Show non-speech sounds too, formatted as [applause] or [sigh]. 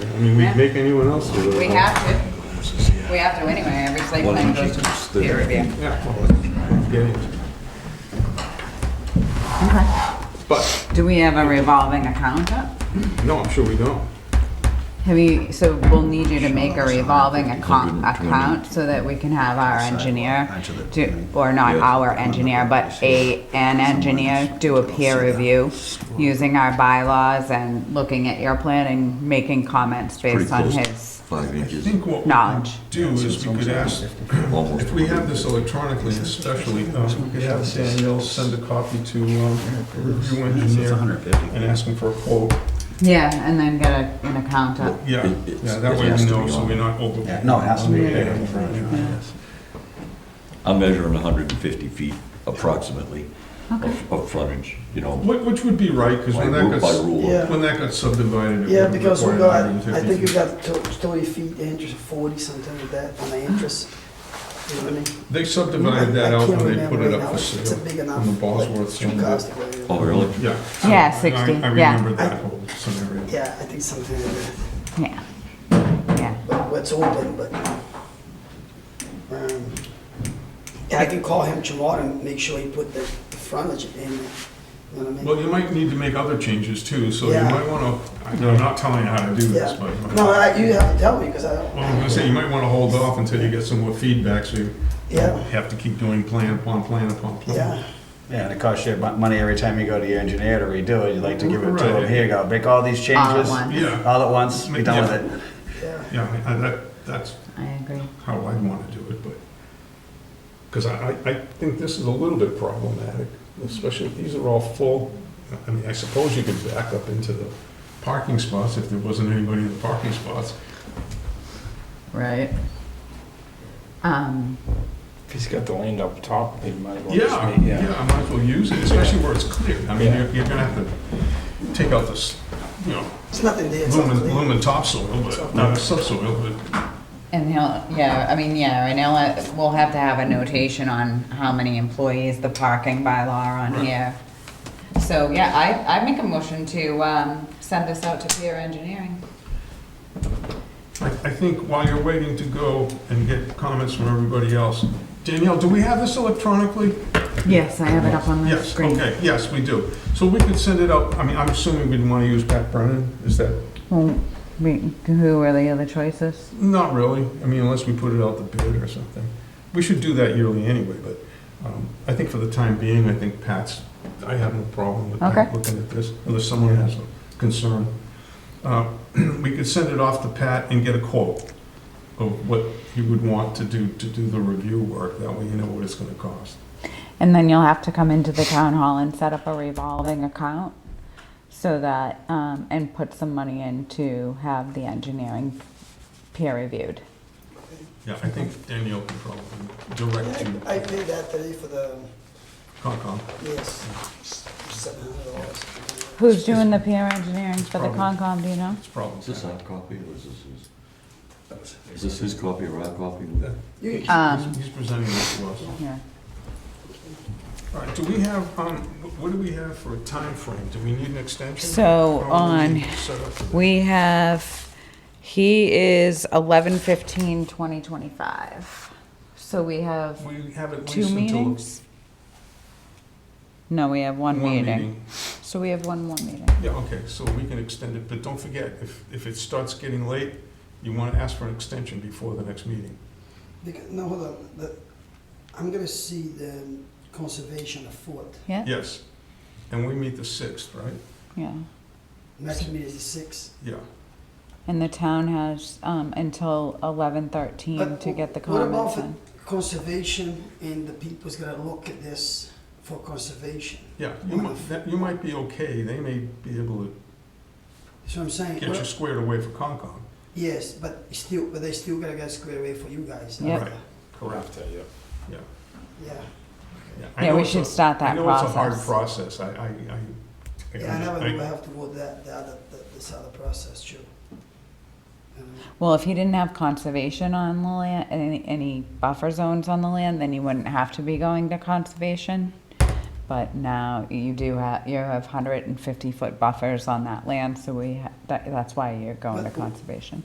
mean, we make anyone else do it. We have to, we have to anyway, every slate plan goes to peer review. Yeah. well, that's- yeah, yeah. But, Do we have a revolving account up? no, I'm sure we don't. Have you, so we'll need you to make a revolving account, account so that we can have our engineer do, or not our engineer, but a, an engineer do a peer review using our bylaws and looking at your plan and making comments Pretty based on close to his Five I inches, think what we could knowledge. do is we could ask, almost. if we have this electronically especially, um, we could have Danielle send a copy to um, a review engineer and ask him for a quote. Yeah, and then get a, an account up. Yeah, It- it's- yeah, that it way has we to know, be so on. we're not over. Yeah, no, it has to be. Yeah. I'm measuring hundred and fifty feet approximately of, of frontage, you know, Which, which would be right, because by when that rule, by got, rule. Yeah. when that got subdivided, Yeah, it would because we require got, 150 I think we feet. got to- 20 feet, the interest 40, something like that, on the interest. You know what I mean? They subdivided that I out can't when they remember put it right now. up for It's- It's a sale. big on enough. the Bosworth like, somewhere. cost area. Oh, really? Yeah. Yeah, I- 60, I yeah. remember that whole scenario. Yeah, I think something like that, Yeah, yeah. but it's open, but. um, Yeah, I can call him tomorrow and make sure he put the the frontage in, there. you know what I mean? Well, you might need to make other changes too, so you Yeah. might want to, I'm not telling you how to do this, Yeah. but. you might- No, I- you have to tell me, because I Well, I'm gonna don't, say, you might want to hold off until you get some more feedback, so you Yeah. have to keep doing plan upon plan upon yeah, plan. Yeah, and it costs you mon- money every time you go to your engineer to redo it. You'd like to give it to Right. him, here you go, make all these All at changes. once. Yeah, All at once, be done Yeah. with it. yeah. yeah, I- that, that's I agree. how I want to do it, but, because I, I I think this is a little bit problematic, especially, if these are all full, I mean, I suppose you could back up into the parking spots if there wasn't anybody in the parking spots. Right. Um, If he's got the land up top, he might want to Yeah, stay, yeah, yeah. I might as well use it, especially where it's clear. I mean, Yeah. you're, you're gonna have to take out this, you know, It's nothing there, it's lumen, not clean. lumen topsoil, but, not subsoil, but, and he'll, yeah, I mean, yeah, right now, uh, we'll have to have a notation on how many employees the parking bylaw are on Right. here. So, yeah, I, I make a motion to, um, send this out to peer engineering. I, I think while you're waiting to go and get comments from everybody else, Danielle, do we have this electronically? Yes, I have it up on the Yes, screen. okay, yes, we do. So we could send it out, I mean, I'm assuming we'd wanna use Pat Brennan, is that, Well, we, who are the other choices? not really, I mean, unless we put it out the bid or something. We should do that yearly anyway, but, um, I think for the time being, I think Pat's, I have no problem with Pat Okay. looking at this, unless someone has a concern. Uh, [clears throat] We could send it off to Pat and get a quote of what he would want to do, to do the review work, that way you know what it's gonna cost. And then you'll have to come into the town hall and set up a revolving account so that, um, and put some money in to have the engineering peer reviewed. Yeah, I think Danielle can probably direct you, Yeah, I I paid that today for the, Concom. yes, seven hundred dollars. Who's doing the peer engineering for the Probably. Concom, do you know? It's probably. Is this our copy or is this his? Is this his copy or our copy? You- He's Um, he's presenting this to us. Yeah. All right, do we have, um, wh- what do we have for a time frame? Do we need an extension? So, How long do we on- need to set up for that? We have, he is eleven fifteen twenty twenty-five. So we have We have at two least until. meetings? No, we have one meeting. So we have one more meeting. Yeah, okay, so we can extend it, but don't forget, if, if it starts getting late, you want to ask for an extension before the next meeting. Because, no, hold on, the, I'm gonna see the conservation of Fort, Yeah? Yes, and we meet the sixth, right? Yeah. next meeting is the sixth. Yeah, And the town has, um, until eleven thirteen But to get the what about comments the- in. Conservation and the people's gonna look at this for conservation, yeah, you might, that- you might be okay, they may be able to that's what I'm saying. get you squared away for Concom. Yes, but still, but they still gotta get squared away for you guys. Yeah. Right. Correct. Yeah. Yeah, I Yeah, know we it's should a- start that I know it's a hard process. process, I, I, I. I- yeah, I never I- knew I have to go that, the other, the- this other process too. Um, Well, if he didn't have conservation on the land, any, any buffer zones on the land, then he wouldn't have to be going to conservation. But now you do have, you have 150-foot buffers on that land, so we, ha- that- that's why you're going to conservation.